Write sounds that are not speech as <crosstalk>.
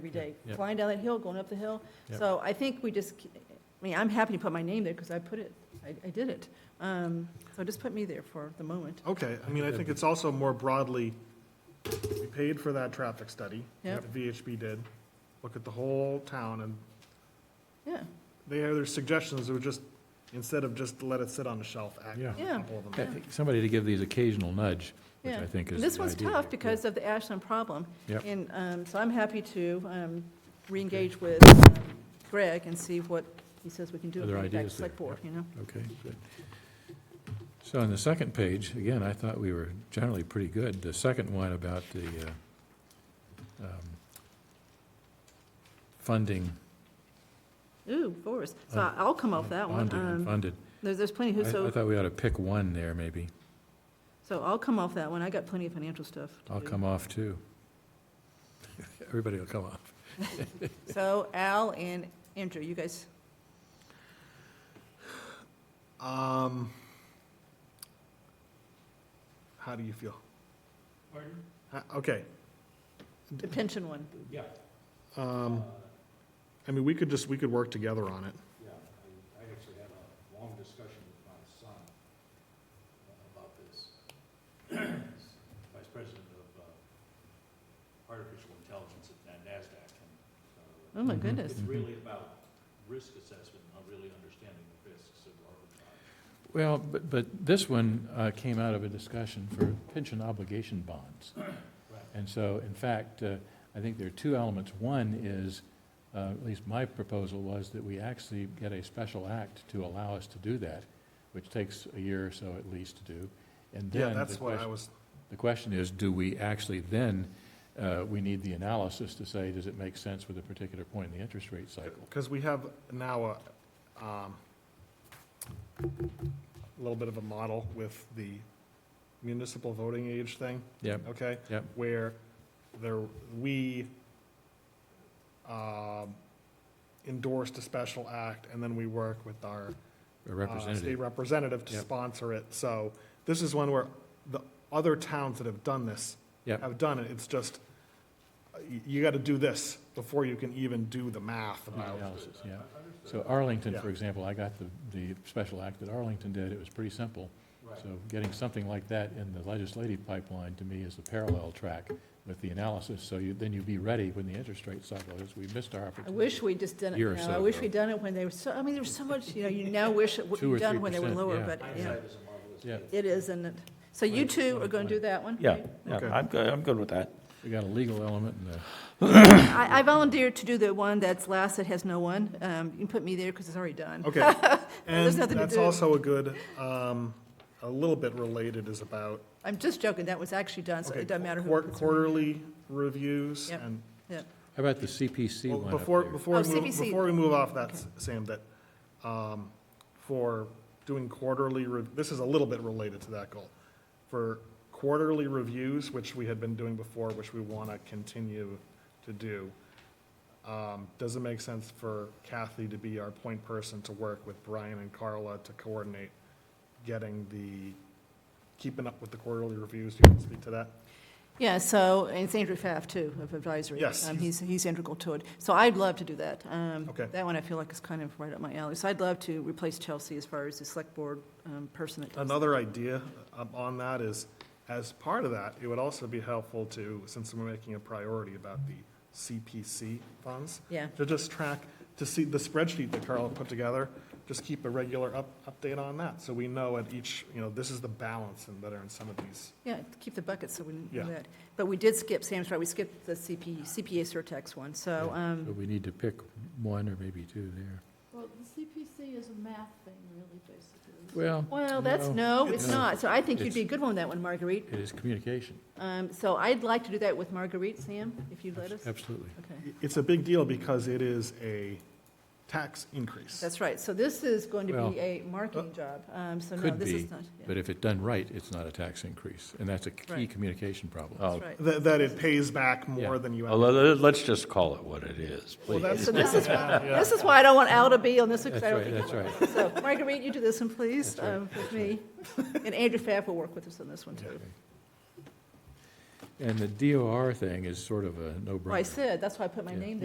every day, yeah. flying down that hill, going up the hill. Yeah. So I think we just, I mean, I'm happy to put my name there because I put it, I, I did it. Um, So just put me there for the moment. Okay, I mean, I think it's also more broadly, we paid for that traffic study. Yep. that the VHB did, look at the whole town, and Yeah, they had their suggestions, it would just, instead of just let it sit on the shelf, act on a Yeah. Yeah. couple of them. I think Somebody to give these occasional nudge, which yeah. I think is And this one's ideal. tough because of the Ashland problem. Yep. And um, so I'm happy to um, reengage with um, Greg and see what he says we can do. Other bring it back to ideas there, Select board, you know? Okay, good. So on the second page, again, I thought we were generally pretty good. The second one about the uh, um, funding, Oooo, Boris. So I- I'll come off that one. bonded and Um, funded. There's, there's plenty, who- I I so, thought we ought to pick one there, maybe. so I'll come off that one. I got plenty of financial stuff to I'll do. come off too. <laughs> Everybody will come off. So Al and Andrew, you guys, Um, how do you feel? Pardon? Okay, the pension one. um, I mean, we could just, we could work together on it. Yeah, I, I actually had a long discussion with my son uh, about this. He's Vice President of uh, Artificial Intelligence at NASDAQ. and, uh, Oh, my Mhm. goodness. It's really about risk assessment, not really understanding the risks of arbitrage. Well, but, but this one uh, came out of a discussion for pension obligation bonds. And so, in fact, uh, I think there are two elements. One is, uh, at least my proposal was that we actually get a special act to allow us to do that, which takes a year or so at least to do. And Yeah, then the that's what I question, was, the question is, do we actually then, uh, we need the analysis to say, does it make sense with a particular point in the interest rate cycle? because we have now a, um, a little bit of a model with the municipal voting age thing, Yeah, okay? Yep. Where there, we um, endorsed a special act, and then we work with our a uh, state representative. representative to Yep. sponsor it. So this is one where the other towns that have done this Yep. have done it. It's just, uh, y- you got to do this before you can even do the math about Analysis, yeah. So Arlington, for Yeah. example, I got the, the special act that Arlington did, it was pretty simple. So getting something like that in the legislative pipeline, to me, is a parallel track with the analysis, so you, then you'd be ready when the interest rate cycle is, we missed our I opportunity. wish we'd just done it Year or now. so I wish ago. we'd done it when they were so, I mean, there's so much, you know, you now wish it would Two be or done when they were 3%, lower, yeah. but yeah, Hindsight is a marvelous Yeah. gift. it is, isn't it? So you Right, two are right, going to do right. that one? Yeah, right? yeah, Okay. I'm good, I'm good with that. We got a legal element and a, I, I volunteered to do the one that's last that has no one. Um, you can put me there because it's already done. <laughs> Okay. And There's nothing to that's do. also a good, um, a little bit related is about I'm just joking, that was actually done, so okay, it doesn't matter who. quar- puts me there. quarterly reviews Yep. and how about the CPC Well, one up Before, there? before, Oh, we move- CPC. before we move off that, Okay. Sam, that, um, for doing quarterly, re- this is a little bit related to that goal. For quarterly reviews, which we had been doing before, which we want to continue to do, um, does it make sense for Kathy to be our point person to work with Brian and Carla to coordinate getting the, keeping up with the quarterly reviews? Do you want to speak to that? Yeah, so, and it's Andrew Pfaff, too, of advisory. Yes. Um, He's, he's integral to it. So I'd love to do that. Um, Okay. That one I feel like is kind of right up my alley. So I'd love to replace Chelsea as far as the select board um, person. that does that. Another idea um, on that is, as part of that, it would also be helpful to, since we're making a priority about the CPC funds, Yeah, to just track, to see the spreadsheet that Carl put together, just keep a regular up, update on that, so we know at each, you know, this is the balance and that are in some of these. yeah, keep the bucket so we didn't do Yeah. that. But we did skip, Sam's right, we skipped the CP, CPA surtax one, so, So um, we need to pick one or maybe two there. Well, the CPC is a math thing, really, basically. Well. well, that's, no, it's No. not. So I think you'd It's- be a good one on that one, Marguerite. It is communication, Um, So I'd like to do that with Marguerite, Sam, if you'd let us. absolutely. Okay. It's a big deal because it is a tax increase. That's right, so this is going to Well, uh, be a marketing job, um, so no, could this be, is not. yeah, But if it done right, it's not a tax increase, and that's a key Right. communication problem. Oh, That's <laughs> right. That, that it pays back more Yeah. than you. well, let- let- let's just call it what it is, Well, please. that's- So this is, this is why I don't want Al to be on this, because That's I don't right, think. that's right. So Marguerite, you do this one, please, That's right, um, with me. And Andrew Pfaff will work with us on this one, too. and the DOR thing is sort of a no-brainer. Well, I said, that's why I put my Yeah. name